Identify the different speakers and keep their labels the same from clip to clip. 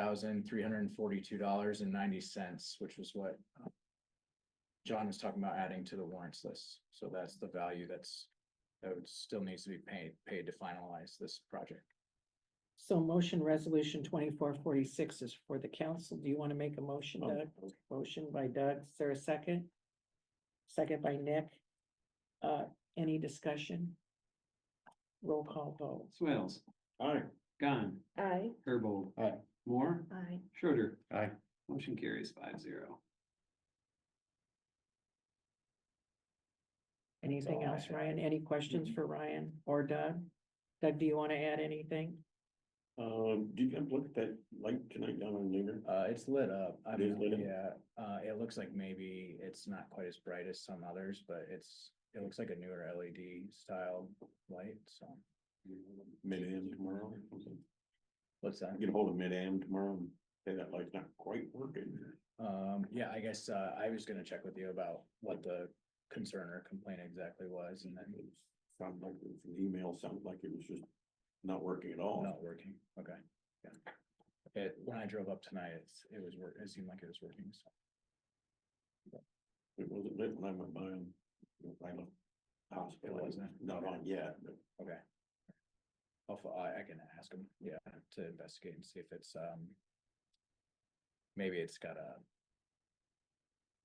Speaker 1: thousand three hundred and forty-two dollars and ninety cents, which was what um, John was talking about adding to the warrants list. So that's the value that's, that would still needs to be paid, paid to finalize this project.
Speaker 2: So motion resolution twenty-four forty-six is for the council. Do you want to make a motion,
Speaker 3: Oh.
Speaker 2: Doug? Motion by Doug. Is there a second? Second by Nick. Uh, any discussion? Roll call vote.
Speaker 3: Swales.
Speaker 1: Aye.
Speaker 3: Gone.
Speaker 4: Aye.
Speaker 3: Herbold.
Speaker 1: Aye.
Speaker 3: Moore.
Speaker 4: Aye.
Speaker 3: Schroeder.
Speaker 1: Aye.
Speaker 3: Motion carries five zero.
Speaker 2: Anything
Speaker 1: all I
Speaker 2: else,
Speaker 1: had.
Speaker 2: Ryan? Any questions for Ryan or Doug? Doug, do you want to add anything?
Speaker 5: Um, did you look at that light tonight down on Linger?
Speaker 1: Uh, it's lit up. I
Speaker 5: It is
Speaker 1: mean,
Speaker 5: lit up?
Speaker 1: yeah, uh, it looks like maybe it's not quite as bright as some others, but it's, it looks like a newer LED style light, so.
Speaker 5: Mid-AM tomorrow or something.
Speaker 1: What's that?
Speaker 5: Get hold of mid-AM tomorrow and say that light's not quite working.
Speaker 1: Um, yeah, I guess, uh, I was gonna check with you about what the concern or complaint exactly was and then
Speaker 5: It Sounded like it was an email, sounded like it was just not working at all.
Speaker 1: not working, okay. yeah. It, when I drove up tonight, it's, it was, wor- it seemed like it was working, so.
Speaker 5: It wasn't lit when I went by and I left the hospital,
Speaker 1: It
Speaker 5: it's
Speaker 1: wasn't?
Speaker 5: not on yet, but
Speaker 1: Okay. I'll, fo- I, I can ask them, yeah, to investigate and see if it's, um. Maybe it's got a,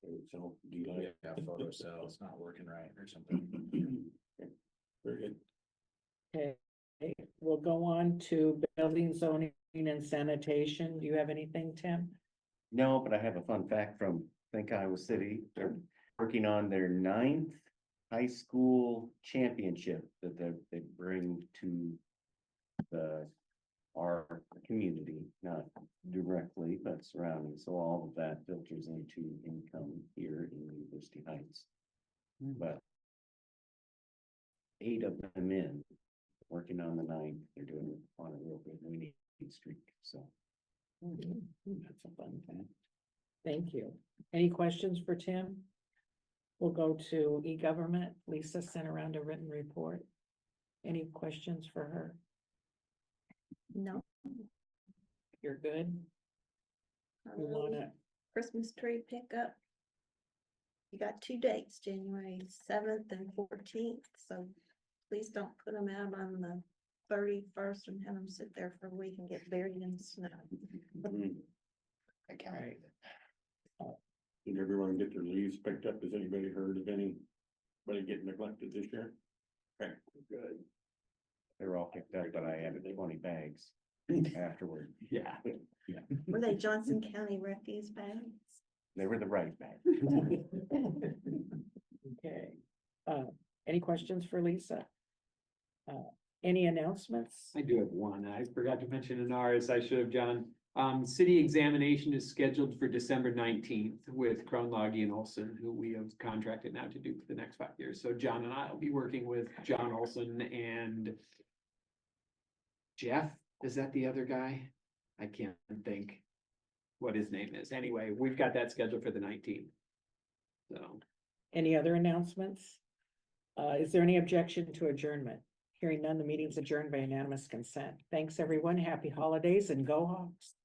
Speaker 5: it's all delayed.
Speaker 1: yeah, photo cell, it's not working right or something.
Speaker 5: Very good.
Speaker 2: Okay, we'll go on to building, zoning and sanitation. Do you have anything, Tim?
Speaker 6: No, but I have a fun fact from, I think Iowa City. They're working on their ninth high school championship that they, they bring to the, our community, not directly, but surrounding. So all of that filters into income here in University Heights. But eight of them in, working on the ninth, they're doing it on a real good winning streak, so.
Speaker 2: Mm-hmm. That's a fun fact. Thank you. Any questions for Tim? We'll go to e-government. Lisa sent around a written report. Any questions for her?
Speaker 4: No.
Speaker 2: You're good? We
Speaker 4: Um,
Speaker 2: wanna,
Speaker 4: Christmas tree pickup. You got two dates, January seventh and fourteenth, so please don't put them out on the thirty-first and have them sit there for a week and get buried in the snow.
Speaker 5: Mm.
Speaker 6: I
Speaker 2: Right.
Speaker 5: Did everyone get their leaves picked up? Has anybody heard of any? Anybody getting neglected this year? Okay, good.
Speaker 6: They were all picked up, but I added twenty bags afterward.
Speaker 5: Yeah.
Speaker 4: Were they Johnson County refuse bags?
Speaker 6: They were the right bag.
Speaker 2: okay. Uh, any questions for Lisa? Uh, any announcements?
Speaker 3: I do have one. I forgot to mention in ours, I should have, John. Um, city examination is scheduled for December nineteenth with Kronloggy and Olson, who we have contracted now to do for the next five years. So John and I will be working with John Olson and Jeff, is that the other guy? I can't think what his name is. Anyway, we've got that scheduled for the nineteenth. So.
Speaker 2: Any other announcements? Uh, is there any objection to adjournment? Hearing none, the meeting's adjourned by unanimous consent. Thanks, everyone. Happy holidays and go Hawks.